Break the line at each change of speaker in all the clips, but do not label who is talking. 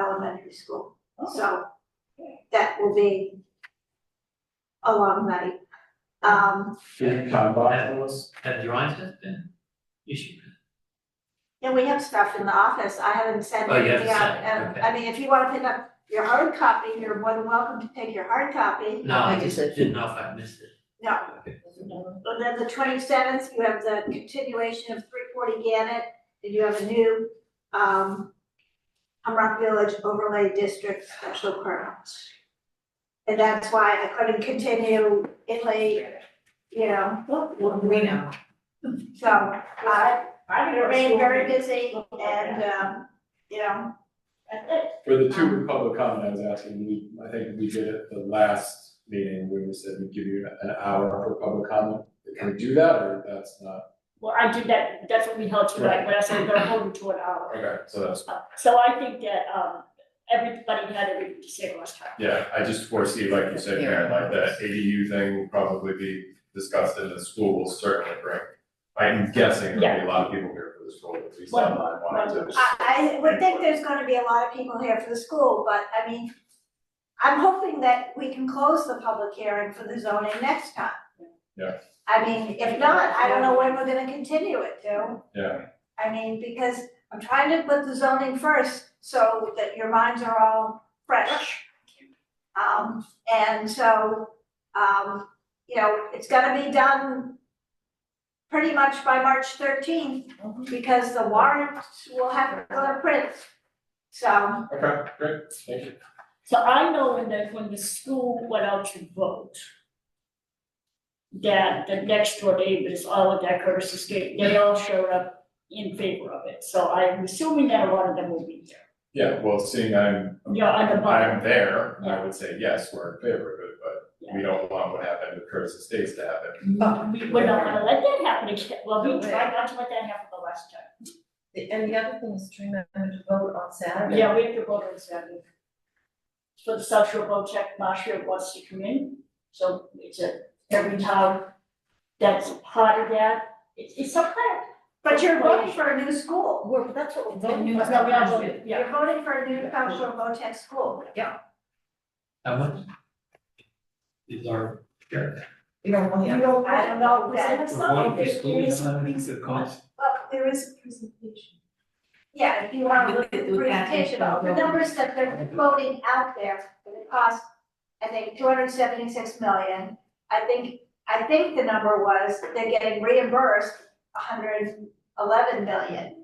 elementary school.
Oh,
So that will be a long night. Um,
Yeah.
Have have drawings been- been issued?
and we have stuff in the office. I haven't sent
Oh, you
anything out.
haven't sent it,
And,
okay.
I mean, if you wanna pick up your hard copy, you're more than welcome to take your hard copy.
No, I
I
just
just said-
didn't know if I missed it.
No,
Okay.
And then the twenty-seventh, you have the continuation of three forty Gannett, and you have a new, um, Humrock Village Overlay District Special Permit. And that's why I couldn't continue Italy, you know,
Well, we know.
so I
I
remain very busy and, um, you know, that's it.
For the two public comment I was asking, we, I think we did it the last meeting, where we said we'd give you an hour for public comment. Can we do that, or that's not?
Well, I did that, that's what we held to, like, when I said we're gonna hold it to an hour.
Okay, so that's,
So I think that, um, everybody had everything to say last time.
yeah, I just foresee, like you said, Karen, like that ADU thing will probably be discussed in the school will certainly bring. I'm guessing there'll be a lot of people here for this role, at least I wanted to.
I, I would think there's gonna be a lot of people here for the school, but I mean, I'm hoping that we can close the public hearing for the zoning next time.
Yeah.
I mean, if not, I don't know when we're gonna continue it to.
Yeah.
I mean, because I'm trying to put the zoning first, so that your minds are all fresh. Um, and so, um, you know, it's gonna be done pretty much by March thirteenth, because the warrants will have color prints. So,
Okay, great, thank you.
So I know when the, when the school went out to vote, that the next door neighbors, all of that Curtis's Gate, they all showed up in favor of it. So I'm assuming that a lot of them will be here.
Yeah, well, seeing I'm,
Yeah, on the bottom.
I'm there, I would say, yes, we're in favor of it, but we don't want what happened with Curtis Estates to happen.
We, we're not gonna let that happen again. Well, we tried not to let that happen the last time.
And the other thing is to remember to vote on Saturday.
Yeah, we have to vote on Saturday. So the South Shore Boat Check Marshal wants to come in, so it's a, every town that's part of that, it's, it's a plan.
but you're voting for a new school.
Well, that's what we're
No,
voting
we
on.
are voting, yeah.
You're voting for a new cultural VOTEC school.
I wonder. Is our share?
We don't want
You
to.
don't,
I don't know that.
It's not, it is,
Well, there is a presentation. Yeah, if you want to look at the
We- we add
presentation,
info.
the numbers that they're quoting out there, it cost, I think, two hundred seventy-six million. I think, I think the number was, they're getting reimbursed hundred eleven million.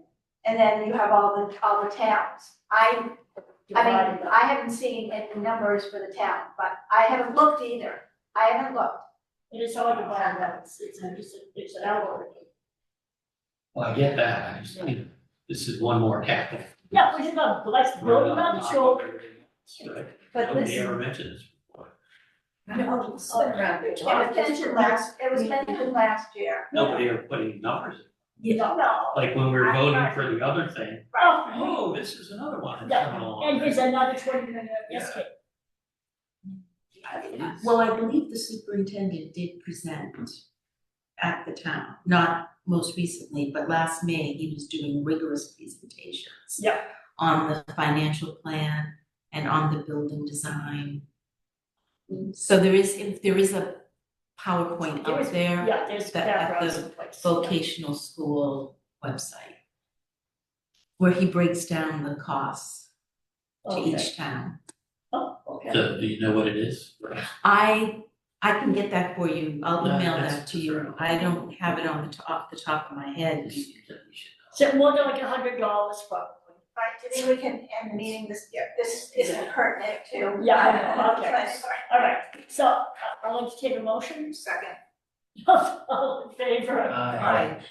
And then you have all the, all the towns. I, I mean, I haven't seen any numbers for the town, but I haven't looked either. I haven't looked.
it is all divided up, it's, it's, a- it's, a- it's an hour.
Well, I get that, I just think this is one more capital.
Yeah, we should not, let's vote on the show.
Right.
But
Nobody
listen,
ever mentioned this before.
no, it's
Oh,
around your
It
talk.
was mentioned last, it was mentioned last year.
Nobody ever put any numbers, in.
You don't know.
like when we were
I-
voting for the other thing,
Oh,
oh, this is another one that's
Yeah,
coming along.
Oh, and here's another twenty minute escape.
Well, I believe the superintendent did present at the town, not most recently, but last May, he was doing rigorous presentations.
Yeah.
On the financial plan and on the building design. So there is, if there is a PowerPoint
There is-
up there,
Yeah, there's
That- at
backgrounds
the
in place.
vocational school website. Where he breaks down the costs to
Okay.
each town.
Oh, okay.
So, do you know what it is?
I, I can get that for you, I'll
Yeah,
email
that's
that to you,
preferable.
I don't have it on the top, off the top of my head.
So more than like a hundred dollars probably.
Right, do you think we can end the meeting this, this is pertinent to. Um,
Yeah, okay. All right, so uh, I'll entertain a motion.
Second.
All in favor?
Aye.